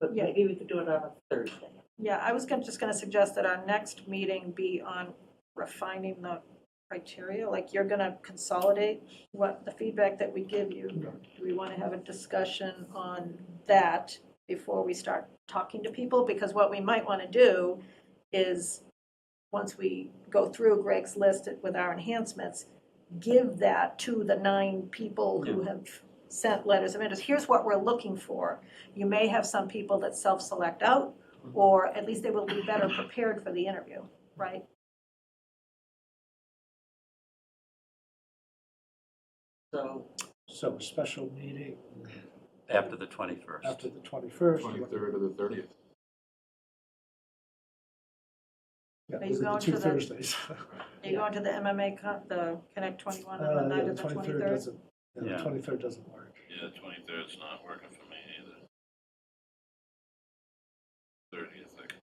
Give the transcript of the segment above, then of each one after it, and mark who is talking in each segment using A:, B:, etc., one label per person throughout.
A: But
B: Yeah.
A: maybe we could do it on a Thursday.
B: Yeah, I was gonna, just gonna suggest that our next meeting be on refining the criteria, like you're gonna consolidate what, the feedback that we give you. Do we wanna have a discussion on that before we start talking to people? Because what we might wanna do is, once we go through Greg's list with our enhancements, give that to the nine people who have sent letters of interest. Here's what we're looking for. You may have some people that self-select out, or at least they will be better prepared for the interview, right?
A: So
C: So a special meeting
D: after the 21st.
C: after the 21st.
E: Twenty-third or the thirtieth.
C: Yeah,
B: Are you
C: those are
B: going
C: the two
B: to the-
C: Thursdays.
B: Are you going to the MMA, con- the Connect 21 on
C: Uh,
B: the
C: yeah,
B: night of the
C: 23rd
B: 23rd?
C: doesn't- yeah, The
D: Yeah.
C: 23rd doesn't work.
F: Yeah, twenty-third's not working for me either. Thirtieth, I can,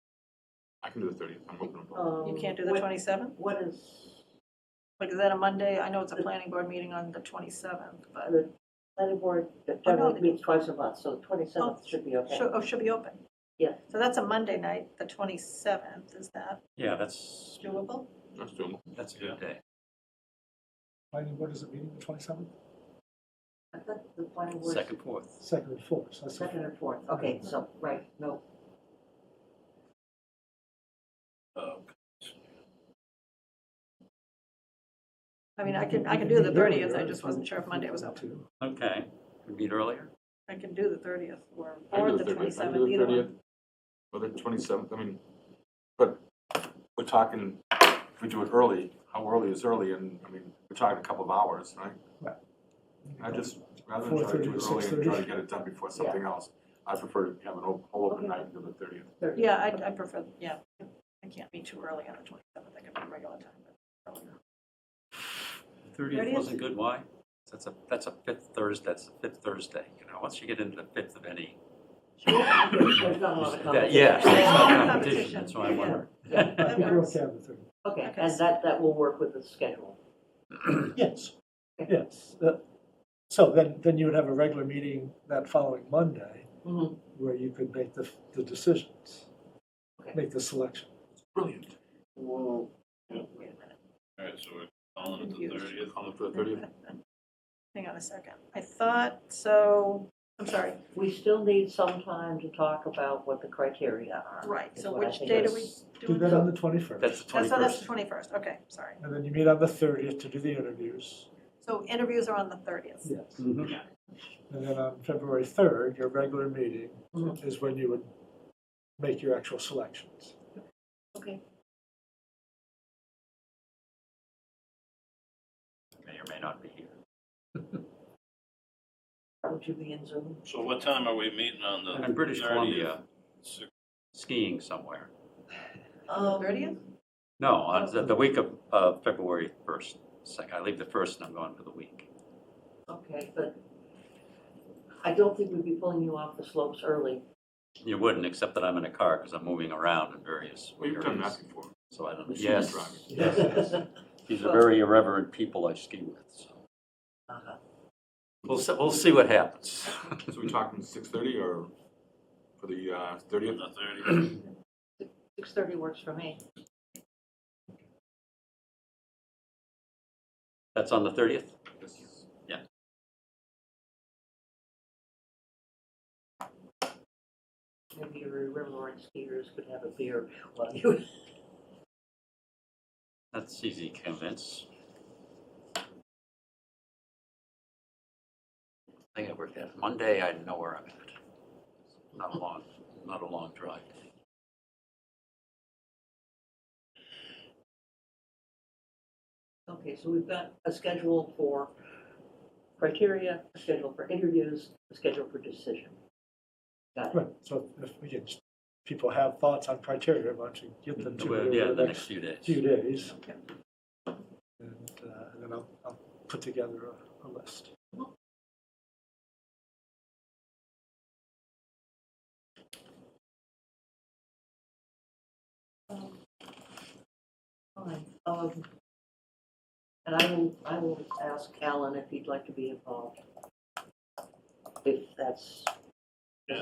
E: I can do the thirtieth, I'm open. on both.
A: um,
B: You can't do the
A: what-
B: 27th?
A: What is,
B: Like, is that a Monday? I know it's a planning board meeting on the 27th, but,
A: the planning board
B: Oh, no,
A: generally meets twice a month, so the twenty-seventh should be okay.
B: should, oh, should be open.
A: Yeah.
B: So that's a Monday night, the 27th, is that
D: Yeah, that's,
B: doable?
E: That's doable.
D: that's a good day.
C: Planning board is a meeting the 27th,
A: I thought the planning board.
D: Second, fourth.
C: second and fourth, so that's. the
A: Second and fourth, okay, so, right, no,
F: uh,
B: I mean, I can, I can do the 30th, I just wasn't sure if Monday was open.
C: Two.
D: Okay, we meet earlier?
B: I can do the 30th or,
E: I can
B: or
E: do
B: the
E: 30th. I can do
B: 27th,
E: the
B: either
E: 30th,
B: one.
E: Or the twenty-seventh, I mean, but we're talking, if we do it early, how early is early, and, I mean, we're talking a couple of hours, right? I just, rather than try to do
C: 4:30 to
E: it early and try
C: 6:30.
E: to get it done before something else, I prefer to have an op- whole open night until the thirtieth.
A: thirty.
B: Yeah, I, I prefer, yeah, I can't be too early on the 27th, I can be regular time, but earlier.
D: The 30th
B: 30th?
D: wasn't good, why? That's a, that's a fifth Thursday, that's the fifth Thursday, you know, once you get into the fifth of any.
A: There's not a lot of competition.
D: that- Yeah, it's
B: Yeah.
D: not competition, that's why I
B: Yeah.
D: wonder.
A: Yeah.
C: I think we're okay on the 30th.
A: Okay,
B: Okay.
A: and that, that will work with the schedule.
C: Yes,
A: Okay.
C: yes. Uh, So then, then you would have a regular meeting that following Monday
B: Mm-hmm.
A: Mhm.
C: where you could make the, the decisions,
A: Okay.
C: make the selection.
E: Brilliant.
A: Whoa, wait
B: Mm-hmm.
A: a minute.
F: all right, so we're calling it the
A: Confused.
F: thirtieth.
E: Call it for the thirtieth,
B: Hang on a second. I thought, so, I'm sorry,
A: We still need some time to talk about what the criteria are.
B: right,
A: is
B: so
A: what I
B: which
A: think
B: day do
A: is-
B: we do?
C: Do that on the 21st.
D: That's the
B: That's, so that's the
D: 21st.
B: twenty-first, okay, sorry.
C: And then you meet on the 30th to do the interviews.
B: So interviews are on the thirtieth.
C: Yes.
D: Mhm.
C: And then on February 3rd, your regular meeting
A: Mhm.
C: is when you would make your actual selections.
A: Okay.
D: May or may not be here.
A: Would you be in Zoom?
F: So what time are we meeting on the
D: I'm
F: thirtieth?
D: in British Columbia skiing somewhere.
B: Thirtieth?
D: No, on the, the week of, uh, February 1st, second, I leave the first and I'm gone for the week.
A: Okay, but I don't think we'd be pulling you off the slopes early.
D: You wouldn't, except that I'm in a car because I'm moving around in various
E: we've done that
D: areas.
E: before.
D: So I don't,
E: We've seen you
D: yes,
E: driving.
D: these are very irreverent people I ski with, so.
A: Uh-huh.
D: We'll, se- we'll see what happens.
E: So we talking six thirty or for the uh,
F: On
E: thirtieth?
F: the thirtieth,
A: Six thirty works for me.
D: That's on the 30th?
A: Maybe your Riverline skiers could have a beer while you.
D: That's easy to convince. I think I worked out, Monday, I know where I'm at. Not a long, not a long drive.
A: Okay, so we've got a schedule for criteria, a schedule for interviews, a schedule for decision. Got it.
C: Right, so if, again, people have thoughts on criteria, why don't you get them to
D: Well,
C: me
D: Yeah,
C: over
D: the next few days.
C: few days.
B: Okay.
C: And uh, and then I'll, I'll put together a- a list.
A: Fine. Um, And I will, I will ask Alan if he'd like to be involved. If that's